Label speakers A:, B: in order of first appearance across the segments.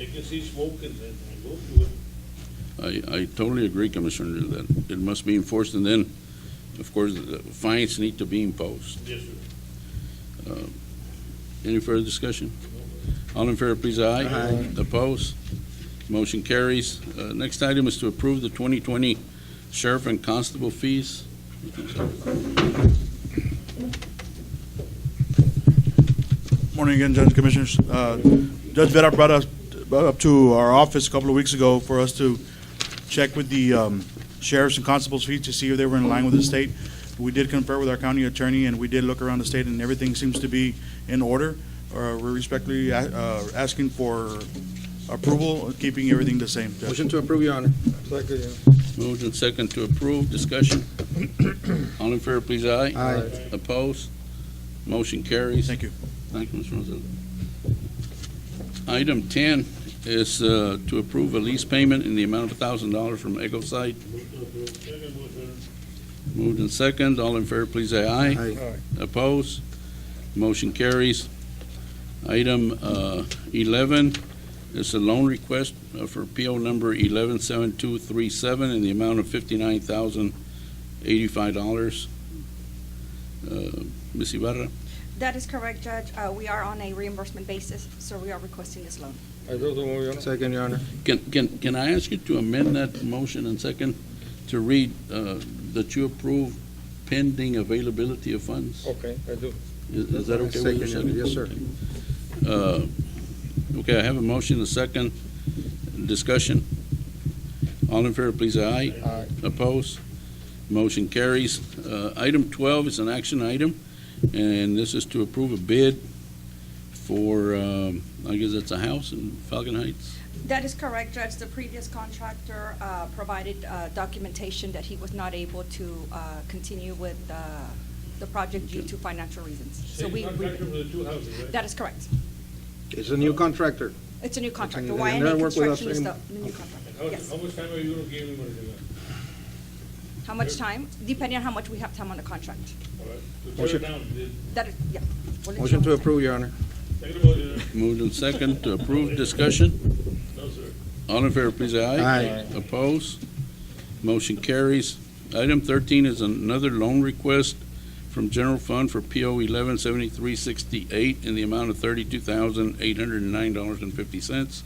A: I can see smoke and then I go through it.
B: I, I totally agree, Commissioner, that it must be enforced, and then, of course, the fines need to be imposed.
A: Yes, sir.
B: Any further discussion? All in favor, please, aye. Aye. Opposed? Motion carries. Uh, Next item is to approve the 2020 sheriff and constable fees.
C: Morning again, Judge Commissioners. Uh, Judge Vera brought us, brought up to our office a couple of weeks ago for us to check with the um, sheriffs and constables' fees to see if they were in line with the state. We did confer with our county attorney, and we did look around the state, and everything seems to be in order. Uh, We're respectfully uh, uh, asking for approval, keeping everything the same, Judge.
D: Motion to approve, Your Honor.
E: Second, Your Honor.
B: Moved and second to approve. Discussion? All in favor, please, aye.
D: Aye.
B: Opposed? Motion carries.
C: Thank you.
B: Thank you, Mr. Rosales. Item 10 is uh, to approve a lease payment in the amount of $1,000 from Echo Site.
A: Move to approve. Second motion.
B: Moved and second. All in favor, please say aye.
D: Aye.
B: Opposed? Motion carries. Item uh, 11 is a loan request uh, for PO number 117237 in the amount of $59,085. Uh, Ms. Ibarra,
F: That is correct, Judge. Uh, We are on a reimbursement basis, so we are requesting this loan.
E: I do so move, Your Honor.
D: Second, Your Honor.
B: can can can I ask you to amend that motion and second to read uh, that you approve pending availability of funds?
D: Oh.
E: Okay, I do.
B: Is is that okay with you?
D: Second, yes, sir.
B: Uh, Okay, I have a motion, a second, discussion. All in favor, please, aye.
E: Aye.
B: Opposed? Motion carries. Uh, Item 12 is an action item, and this is to approve a bid for, um, I guess that's a house in Falcon Heights?
F: That is correct, Judge. The previous contractor uh, provided uh, documentation that he was not able to uh, continue with uh, the project due to financial reasons. So
A: Same
F: we,
A: contractor for the two houses, right?
F: that is correct.
D: It's a new contractor.
F: It's a new contractor.
D: and
F: YNA
D: they'll work with us
F: Construction is the
D: in-
F: the new contractor.
A: How,
F: Yes.
A: how much time are you gonna give him on the,
F: How much time? Depending on how much we have time on the contract.
A: all right? To tear it
D: Motion.
A: down, the-
F: That is, yeah. We'll let you
D: Motion
F: know
D: to
F: how much time.
D: approve, Your Honor.
A: second motion,
B: Moved and second to approve, discussion.
A: no, sir.
B: All in favor, please, aye.
D: Aye.
B: Opposed? Motion carries. Item 13 is another loan request from General Fund for PO 117368 in the amount of $32,809.50.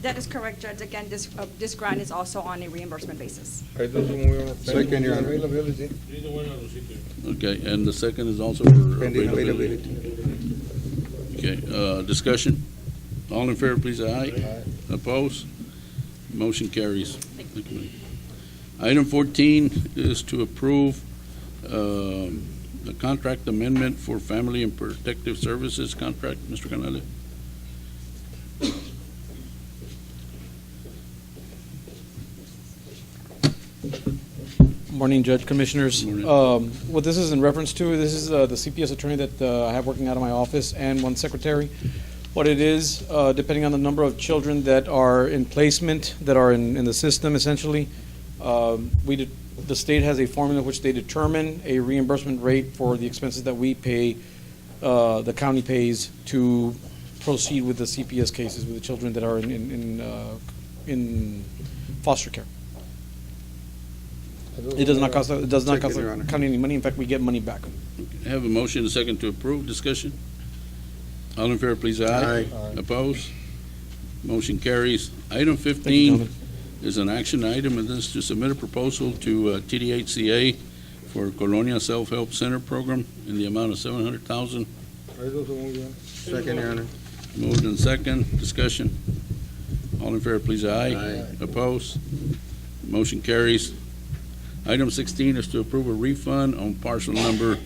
F: That is correct, Judge. Again, this, uh, this grant is also on a reimbursement basis.
E: I do so move, Your Honor.
D: Second, Your Honor.
E: Availability.
A: Neither one of those, you can.
B: Okay, and the second is also for
D: Pending
B: availability.
D: availability.
B: Okay, uh, discussion. All in favor, please, aye. Opposed? Motion carries. Thank you. Item 14 is to approve um, the contract amendment for Family and Protective Services contract. Mr. Canales?
G: Morning, Judge Commissioners.
B: Morning.
G: Um, What this is in reference to, this is uh, the CPS attorney that uh, I have working out of my office and one secretary. What it is, uh, depending on the number of children that are in placement, that are in in the system essentially, um, we, de- the state has a formula which they determine a reimbursement rate for the expenses that we pay, uh, the county pays to proceed with the CPS cases with the children that are in- in in, uh, in foster care.
E: I do so
G: It does
E: move,
G: not
E: Your
G: cost, it does not cost
D: Second, Your Honor.
G: the county any money. In fact, we get money back.
B: I have a motion, a second to approve. Discussion? All in favor, please, aye.
D: Aye.
E: Aye.
B: Opposed? Motion carries. Item
G: Thank you,
B: 15
G: gentlemen.
B: is an action item, and this is to submit a proposal to uh, TDHCA for Colonia Self-Help Center Program in the amount of 700000
E: Honor. I do so move, Your Honor.
D: Second, Your Honor.
B: Moved and second, discussion. All in favor, please, aye.
D: Aye.
B: Opposed? Motion carries. Item 16 is to approve a refund on parcel number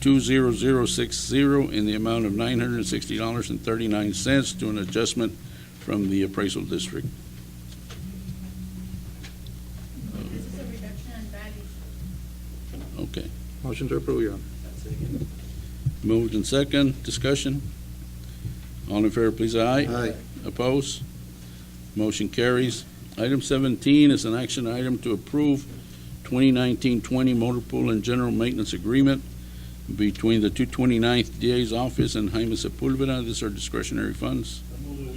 B: 20060 in the amount of $960.39 to an adjustment from the appraisal district.
H: This is a reduction in value.
B: Okay.
D: Motion to approve, Your Honor.
B: Moved and second, discussion. All in favor, please, aye.
D: Aye.
B: Opposed? Motion carries. Item 17 is an action item to approve 2019-20 motor pool and general maintenance agreement between the 229th DA's office and Jaime Sepulveda. These are discretionary funds.